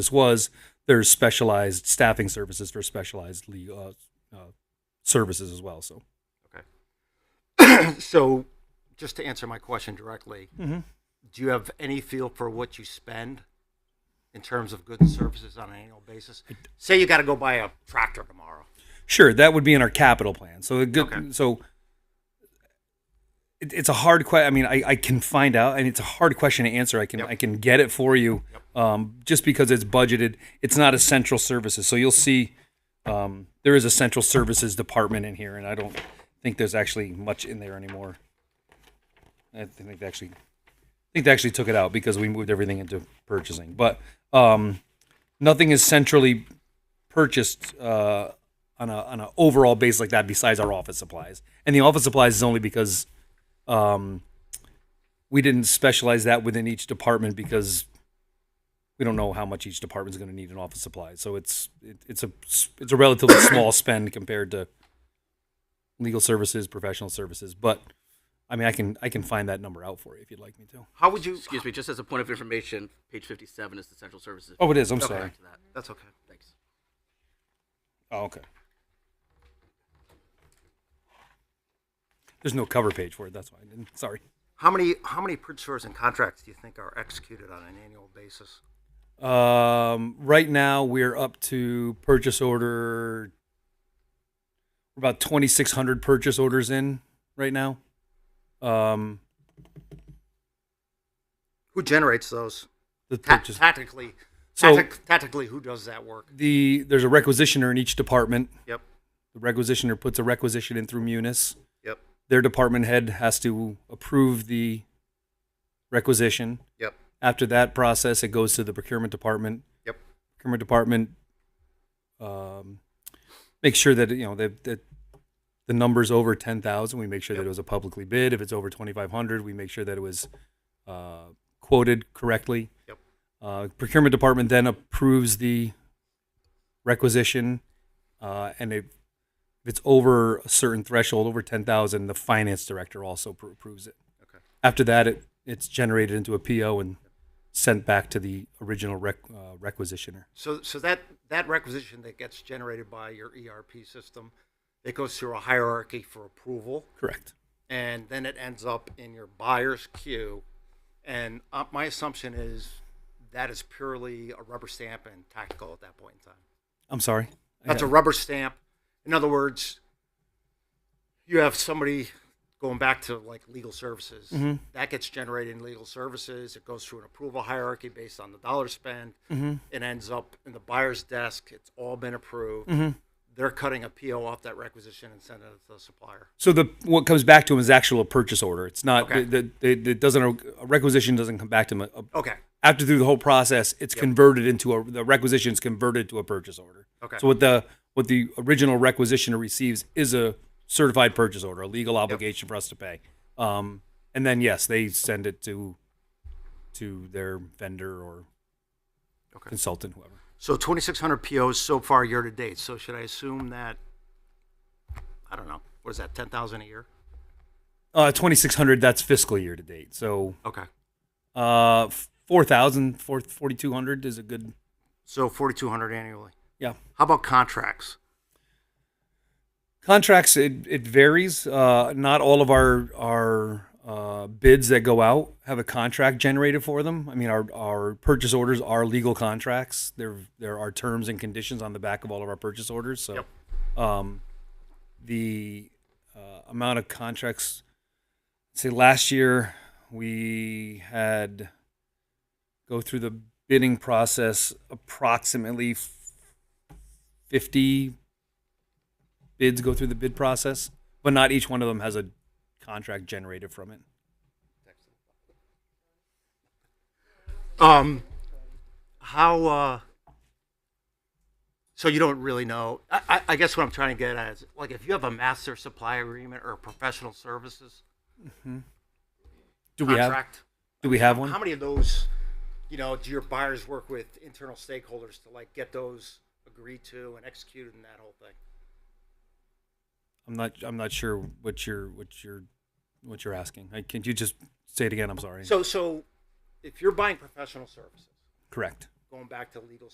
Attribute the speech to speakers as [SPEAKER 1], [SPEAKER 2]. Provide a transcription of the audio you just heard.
[SPEAKER 1] this was there's specialized staffing services for specialized le- uh, uh, services as well. So
[SPEAKER 2] So, just to answer my question directly,
[SPEAKER 1] Mhm.
[SPEAKER 2] do you have any feel for what you spend in terms of goods and services on an annual basis? Say you got to go buy a tractor tomorrow.
[SPEAKER 1] sure, that would be in our capital plan. So a good,
[SPEAKER 2] Okay.
[SPEAKER 1] so it, it's a hard question. I mean, I, I can find out, and it's a hard question to answer. I can
[SPEAKER 2] Yep.
[SPEAKER 1] I can get it for you, um, just because it's budgeted. It's not essential services, so you'll see um, there is a central services department in here, and I don't think there's actually much in there anymore. I think they actually, I think they actually took it out because we moved everything into purchasing. But um, nothing is centrally purchased uh, on a on an overall base like that besides our office supplies. And the office supplies is only because um, we didn't specialize that within each department because we don't know how much each department's going to need in office supplies. So it's it, it's a it's a relatively small spend compared to legal services, professional services, but I mean, I can I can find that number out for you if you'd like me to.
[SPEAKER 2] How would you?
[SPEAKER 3] Excuse me, just as a point of information, page 57 is the central services.
[SPEAKER 1] Oh, it is. I'm
[SPEAKER 3] Okay.
[SPEAKER 1] sorry.
[SPEAKER 3] Back to that.
[SPEAKER 2] That's okay.
[SPEAKER 3] Thanks.
[SPEAKER 1] Oh, okay. There's no cover page for it. That's why I didn't. Sorry.
[SPEAKER 2] How many how many purchasers and contracts do you think are executed on an annual basis?
[SPEAKER 1] Um, right now we're up to purchase order. We're about 2,600 purchase orders in right now. Um,
[SPEAKER 2] Who generates those?
[SPEAKER 1] the
[SPEAKER 2] Ta-
[SPEAKER 1] purchase.
[SPEAKER 2] tactically,
[SPEAKER 1] So-
[SPEAKER 2] tactic- tactically, who does that work?
[SPEAKER 1] The there's a requisitioner in each department.
[SPEAKER 2] Yep.
[SPEAKER 1] The requisitioner puts a requisition in through Munis.
[SPEAKER 2] Yep.
[SPEAKER 1] Their department head has to approve the requisition.
[SPEAKER 2] Yep.
[SPEAKER 1] After that process, it goes to the procurement department.
[SPEAKER 2] Yep.
[SPEAKER 1] Procurement department um, makes sure that you know that, that the number's over ten thousand. We make sure that
[SPEAKER 2] Yep.
[SPEAKER 1] it was a publicly bid. If it's over twenty five hundred, we make sure that it was uh, quoted correctly.
[SPEAKER 2] Yep.
[SPEAKER 1] Uh, procurement department then approves the requisition, uh, and it, if it's over a certain threshold, over ten thousand, the finance director also pr- approves it.
[SPEAKER 2] Okay.
[SPEAKER 1] After that, it it's generated into a PO and sent back to the original rec, uh, requisitioner.
[SPEAKER 2] So, so that, that requisition that gets generated by your ERP system, it goes through a hierarchy for approval,
[SPEAKER 1] Correct.
[SPEAKER 2] and then it ends up in your buyer's queue. And uh, my assumption is that is purely a rubber stamp and tactical at that point in time.
[SPEAKER 1] I'm sorry. I
[SPEAKER 2] That's a
[SPEAKER 1] got-
[SPEAKER 2] rubber stamp. In other words, you have somebody going back to like legal services.
[SPEAKER 1] Mm-hmm.
[SPEAKER 2] That gets generated in legal services. It goes through an approval hierarchy based on the dollar spend.
[SPEAKER 1] Mm-hmm.
[SPEAKER 2] It ends up in the buyer's desk. It's all been approved.
[SPEAKER 1] Mm-hmm.
[SPEAKER 2] They're cutting a PO off that requisition and sending it to the supplier.
[SPEAKER 1] So the what comes back to him is actual purchase order. It's not
[SPEAKER 2] Okay.
[SPEAKER 1] the, the, the, it doesn't a requisition doesn't come back to him. Uh,
[SPEAKER 2] Okay.
[SPEAKER 1] After through the whole process, it's converted into a the requisition is converted to a purchase order.
[SPEAKER 2] Okay.
[SPEAKER 1] So what the what the original requisitioner receives is a certified purchase order, a legal obligation for us to pay. Um, and then yes, they send it to to their vendor or
[SPEAKER 2] Okay.
[SPEAKER 1] consultant, whoever.
[SPEAKER 2] So 2,600 POs so far year to date. So should I assume that, I don't know, what is that, 10,000 a year?
[SPEAKER 1] Uh, twenty six hundred. That's fiscal year to date. So
[SPEAKER 2] Okay.
[SPEAKER 1] uh, 4,000, 4- 4,200 is a good
[SPEAKER 2] So 4,200 annually.
[SPEAKER 1] yeah.
[SPEAKER 2] How about contracts?
[SPEAKER 1] contracts it, it varies uh, not all of our our uh, bids that go out have a contract generated for them i mean our, our purchase orders are legal contracts there there are terms and conditions on the back of all of our purchase orders so um, the uh, amount of contracts say last year we had go through the bidding process approximately 50 bids go through the bid process, but not each one of them has a contract generated from it.
[SPEAKER 2] Um, how? Uh, so you don't really know. I, I, I guess what I'm trying to get at is, like, if you have a master supply agreement or a professional services
[SPEAKER 1] Do we have
[SPEAKER 2] contract,
[SPEAKER 1] do we have one?
[SPEAKER 2] how many of those, you know, do your buyers work with internal stakeholders to like get those agreed to and executed and that whole thing?
[SPEAKER 1] I'm not I'm not sure what you're what you're what you're asking. I, can you just say it again? I'm sorry.
[SPEAKER 2] So, so if you're buying professional services,
[SPEAKER 1] Correct.
[SPEAKER 2] going back to legal